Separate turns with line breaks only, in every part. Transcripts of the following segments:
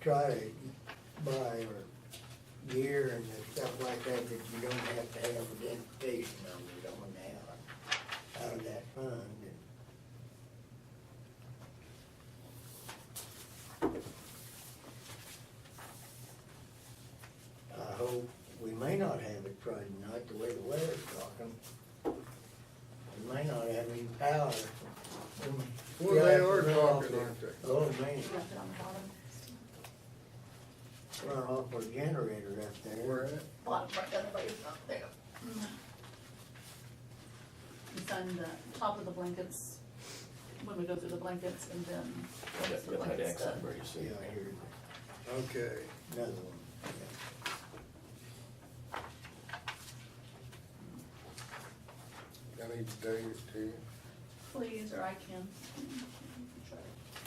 try to buy or gear and the stuff like that that you don't have to have identification numbers on now, out of that fund. I hope, we may not have it Friday night, the way the weather's talking. We may not have any power.
Well, they are talking, aren't they?
Oh, man,
Left it on the bottom.
run off our generator up there.
Where at?
Bottom part, the other way is up there. It's on the top of the blankets, when we go through the blankets and then. once the
You'll have
blanket's uh,
accent
done.
where you see.
Yeah, I hear
Okay,
another one, yeah.
I need days too,
Please, or I can.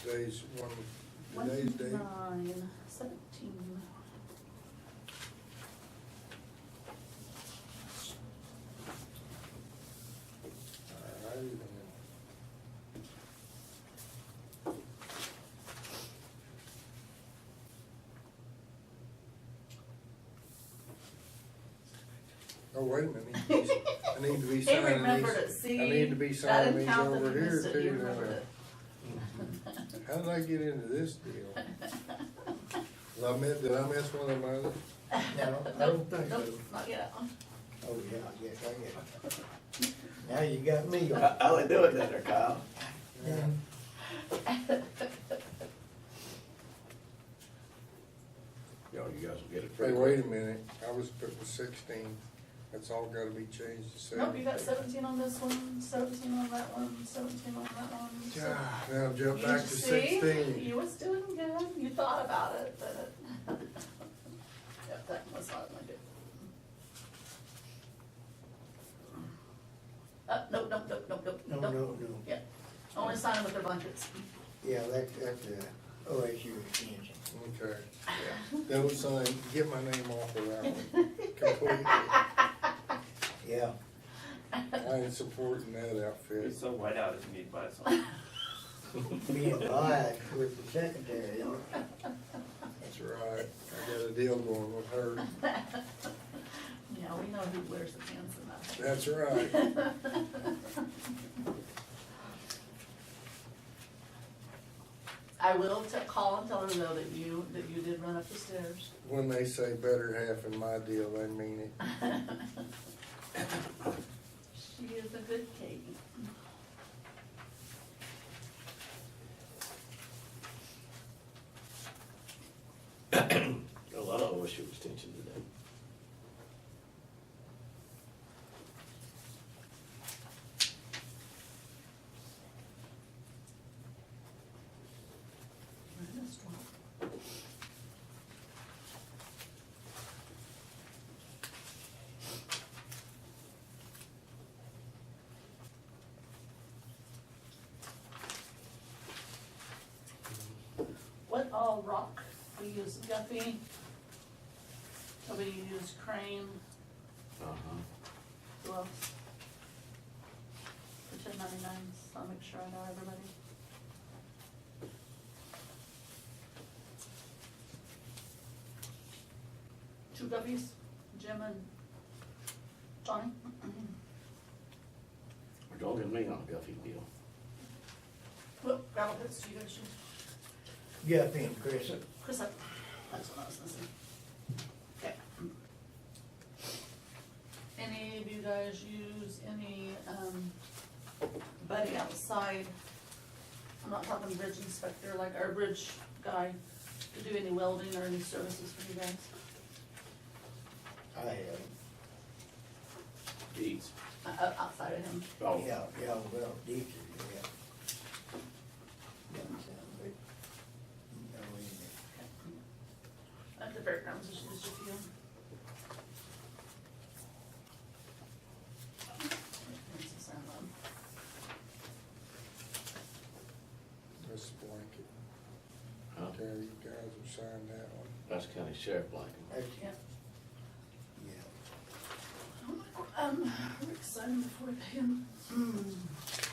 days, one, today's day,
uh, Nine seventeen.
Alrighty then. Oh, wait a minute, I need to be- I need to be
He
signing these.
remembered it, see?
I need to be
That
signing
didn't
these
count that
over
he
here
missed it, he
too.
remembered
now.
it.
How did I get into this deal? Did I miss, did I miss one of my others?
No, I don't
Nope,
think
nope,
so.
not yet.
Oh, yeah, yes, I get it. Now you got me
Uh,
on.
I only do it down there, Kyle.
Yeah.
Yo, you guys will get it
Hey,
pretty
wait a
quick.
minute, I was putting sixteen, that's all gotta be changed to
Nope,
seven.
you got seventeen on this one, seventeen on that one, seventeen on that one. so-
God, Now jump
You
back to
see,
sixteen.
You was doing good, you thought about it, but. Yep, that was not my good. Uh, nope, nope, nope, nope, nope,
No,
nope.
no, no.
Yeah, only signing with their blankets.
Yeah, that, that's a OSU extension.
Okay, that was, uh, get my name off of that one completely.
Yeah,
I ain't supporting that outfit.
It's so white out, if you need to buy something.
being biased with the secretary, you know.
That's right, I got a deal going with her.
Yeah, we know who wears the pants in that.
That's right.
I will t- call and tell her though that you, that you did run up the stairs.
When they say better half in my deal, they mean it.
She is a good Katie.
A lot of OSU extension today.
Minus one. What all rock? We use Guffey. We use Crane.
Uh-huh.
Who else? For ten ninety-nines, I'll make sure I know everybody. Two guppies, Jim and Johnny.
We're dogging me on a Guffey deal.
Look, gravel pits, you guys should,
Jeff and Chris,
Chris, I- that's what I was missing. Okay. Any of you guys use any, um, buddy outside? I'm not talking bridge inspector, like our bridge guy, to do any welding or any services for you guys?
I have,
Deeds.
Uh, uh, outside of him,
yeah,
Oh,
yeah, well, teacher, yeah. Doesn't sound good. No, isn't
at the fairgrounds, it's just a few. There's a sound on.
That's a blanket.
huh?
Okay, you guys have signed that one.
That's county sheriff blanket.
it?
Yeah.
That's, yeah.
Um, Rick's son before him. Hmm.